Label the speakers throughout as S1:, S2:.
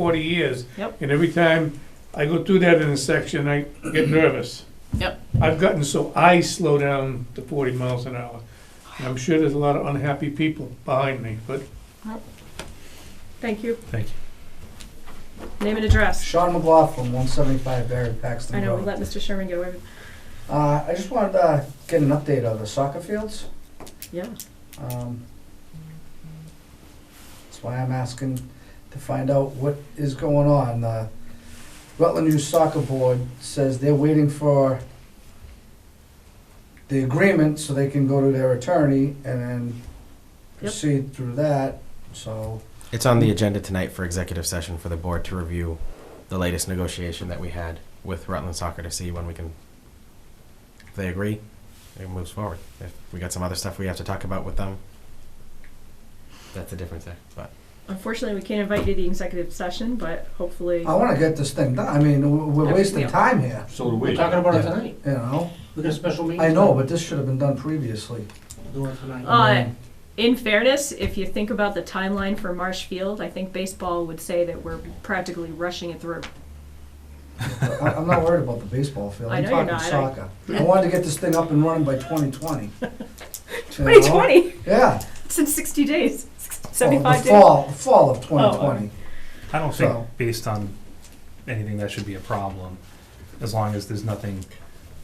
S1: forty years.
S2: Yep.
S1: And every time I go through that intersection, I get nervous.
S2: Mm-hmm. Yep.
S1: I've gotten so I slow down to forty miles an hour. And I'm sure there's a lot of unhappy people behind me, but
S2: Thank you.
S3: Thank you.
S2: Name and address.
S4: Sean McLaughlin, one seventy-five Barry Paxton
S2: I know, we
S4: Road.
S2: let Mr. Sherman get away with,
S4: Uh, I just wanted to get an update of the soccer fields.
S2: yeah.
S4: Um, That's why I'm asking to find out what is going on. The Rutland Youth Soccer Board says they're waiting for the agreement so they can go to their attorney and then
S2: Yep.
S4: proceed through that, so.
S5: It's on the agenda tonight for executive session for the board to review the latest negotiation that we had with Rutland Soccer to see when we can, if they agree, it moves forward. If we got some other stuff we have to talk about with them, that's a different thing, but.
S2: Unfortunately, we can't invite you to the executive session, but hopefully,
S4: I wanna get this thing done. I mean, w- we're
S2: Yeah,
S4: wasting
S2: yeah.
S4: time here,
S6: So do
S7: We're
S6: we.
S7: talking about it
S5: Yeah.
S7: tonight.
S4: you know?
S7: We got a special meeting.
S4: I know, but this should have been done previously.
S7: tonight. Doing it tonight.
S2: uh, in fairness, if you think about the timeline for Marsh Field, I think baseball would say that we're practically rushing it through.
S4: I- I'm not worried about the baseball field.
S2: I
S4: I'm
S2: know you're
S4: talking
S2: not. I-
S4: soccer. I wanted to get this thing up and running by 2020. You know?
S2: Twenty twenty,
S4: Yeah.
S2: it's in sixty days,
S4: Well,
S2: seventy-five
S4: Oh, the
S2: days. Oh,
S4: fall, the fall of 2020.
S3: I don't think,
S4: So-
S3: based on anything, that should be a problem, as long as there's nothing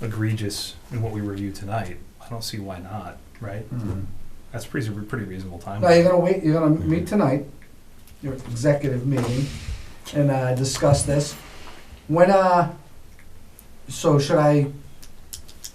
S3: egregious in what we review tonight. I don't see why not, right?
S4: Mhm.
S3: That's pretty, pretty reasonable time.
S4: Now you're gonna wait. You're gonna meet tonight. Your executive meeting, and uh, discuss this. When uh, so should I?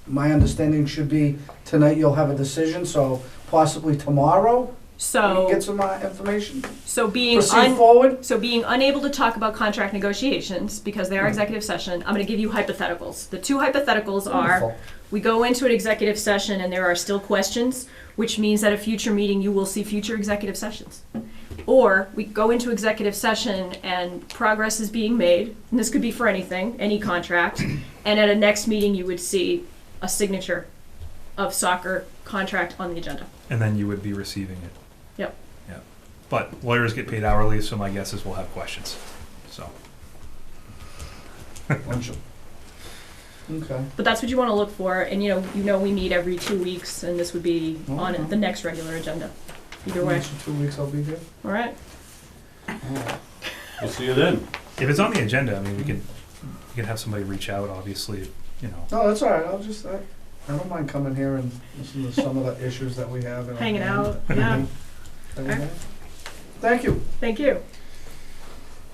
S4: My understanding should be tonight. You'll have a decision. So possibly tomorrow we can
S2: So,
S4: get some uh, information.
S2: so being
S4: Proceed
S2: un,
S4: forward.
S2: so being unable to talk about contract negotiations because they are
S4: Hmm.
S2: executive session, I'm gonna give you hypotheticals. The two hypotheticals are,
S4: Wonderful.
S2: We go into an executive session and there are still questions, which means at a future meeting, you will see future executive sessions. Or we go into executive session and progress is being made, and this could be for anything, any contract, and at a next meeting, you would see a signature of soccer contract on the agenda.
S3: And then you would be receiving it.
S2: Yep.
S3: Yeah. But lawyers get paid hourly, so my guess is we'll have questions, so.
S4: Okay.
S2: But that's what you want to look for, and you know, you know we meet every two weeks, and this would be on
S4: Mhm.
S2: the next regular agenda. Either way,
S4: In two weeks I'll be there.
S2: all right?
S6: We'll see you then.
S3: If it's on the agenda, I mean, we could, we could have somebody reach out, obviously, you know.
S4: No, that's all right. I'll just, uh, I, I don't mind coming here and listening to some of the issues that we have. in our
S2: Hanging
S4: hand
S2: out, yeah.
S4: that we have. Thank you.
S2: Thank you.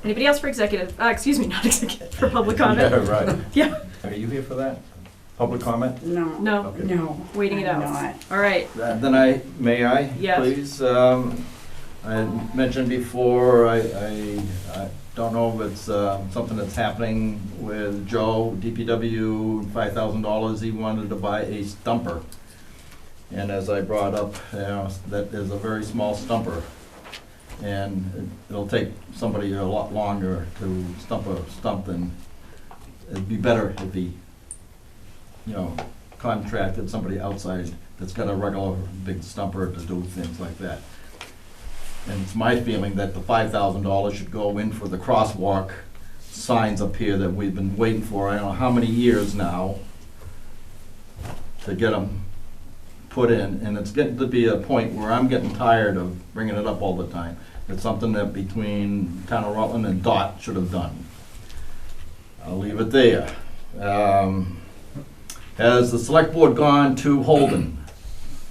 S2: Anybody else for executive, uh, excuse me, not executive, for public comment?
S6: Yeah, right.
S2: Yeah.
S6: Are you here for that? Public comment?
S8: No.
S2: No,
S6: Okay.
S8: No.
S2: waiting it
S8: I'm
S2: out.
S8: not.
S2: All right,
S6: Then then I, may I?
S2: Yes.
S6: Please, um, I had mentioned before, I, I, I don't know if it's, um, something that's happening with Joe, DPW, five thousand dollars, he wanted to buy a stumper. And as I brought up, you know, that is a very small stumper. And it'll take somebody a lot longer to stump a stump than, it'd be better if he, you know, contracted somebody outside that's got a regular big stumper to do things like that. And it's my feeling that the five thousand dollars should go in for the crosswalk signs up here that we've been waiting for, I don't know how many years now, to get them put in, and it's getting to be a point where I'm getting tired of bringing it up all the time. It's something that between Town of Rutland and DOT should have done. I'll leave it there. Um, Has the select board gone to Holden?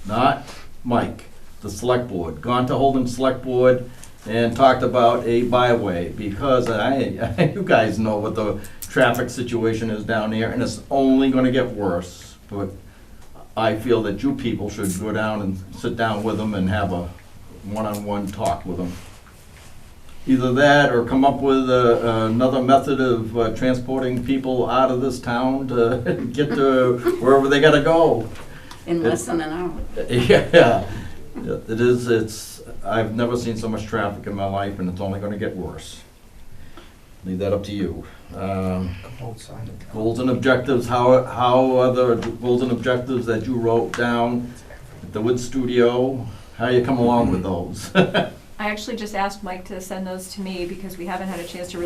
S6: Not Mike, the select board. Gone to Holden Select Board and talked about a byway because I, you guys know what the traffic situation is down there and it's only gonna get worse. But I feel that you people should go down and sit down with them and have a one-on-one talk with them. Either that or come up with uh, another method of uh, transporting people out of this town to get to wherever they gotta go.
S8: In less than an hour.
S6: Yeah, it is, it's, I've never seen so much traffic in my life and it's only gonna get worse. Leave that up to you. Um,
S4: Both sides.
S6: Goals and objectives, how, how are the goals and objectives that you wrote down at the Wood Studio, how you come along with those?
S2: I actually just asked Mike to send those to me because we haven't had a chance to really